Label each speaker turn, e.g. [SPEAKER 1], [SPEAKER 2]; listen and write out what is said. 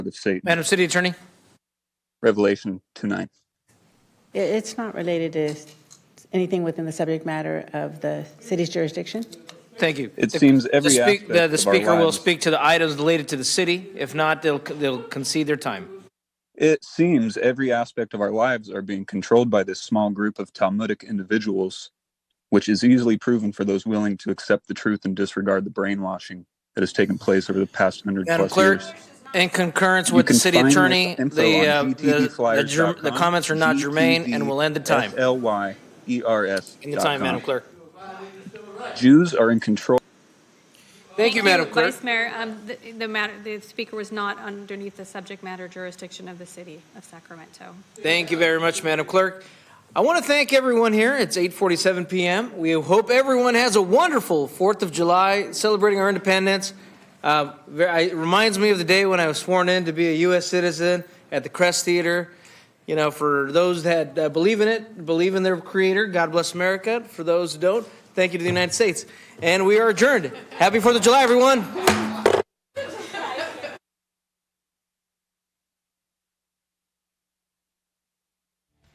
[SPEAKER 1] the state.
[SPEAKER 2] Madam City Attorney?
[SPEAKER 1] Revelation 2:9.
[SPEAKER 3] It- It's not related to anything within the subject matter of the city's jurisdiction?
[SPEAKER 2] Thank you.
[SPEAKER 1] It
[SPEAKER 2] The-
[SPEAKER 1] seems every
[SPEAKER 2] the speak-
[SPEAKER 1] aspect
[SPEAKER 2] the- The
[SPEAKER 1] of our
[SPEAKER 2] speaker will
[SPEAKER 1] lives-
[SPEAKER 2] speak to the items related to the city. If not, they'll, they'll concede their time.
[SPEAKER 1] It seems every aspect of our lives are being controlled by this small group of Talmudic individuals, which is easily proven for those willing to accept the truth and disregard the brainwashing that has taken place over the past hundred
[SPEAKER 2] Madam
[SPEAKER 1] plus
[SPEAKER 2] Clerk,
[SPEAKER 1] years.
[SPEAKER 2] in concurrence
[SPEAKER 1] You
[SPEAKER 2] with the
[SPEAKER 1] can
[SPEAKER 2] city
[SPEAKER 1] find this
[SPEAKER 2] attorney,
[SPEAKER 1] info
[SPEAKER 2] the, uh,
[SPEAKER 1] on
[SPEAKER 2] the- the ger-
[SPEAKER 1] gtdflyers.com,
[SPEAKER 2] the comments are not germane and will end the time.
[SPEAKER 1] G-T-D-F-L-Y-E-R-S
[SPEAKER 2] End the
[SPEAKER 1] E
[SPEAKER 2] time,
[SPEAKER 1] dot
[SPEAKER 2] Madam
[SPEAKER 1] com.
[SPEAKER 2] Clerk.
[SPEAKER 1] Jews are in control.
[SPEAKER 2] Thank you, Madam Clerk.
[SPEAKER 4] Vice Mayor, um, the- the matter, the speaker was not underneath the subject matter jurisdiction of the city of Sacramento.
[SPEAKER 2] Thank you very much, Madam Clerk. I want to thank everyone here. It's 8:47 PM. We hope everyone has a wonderful 4th of July, celebrating our independence. Uh, ver- I- It reminds me of the day when I was sworn in to be a U.S. citizen at the Crest Theater. You know, for those that uh, believe in it, believe in their creator, God bless America. For those who don't, thank you to the United States. And we are adjourned. Happy 4th of July, everyone.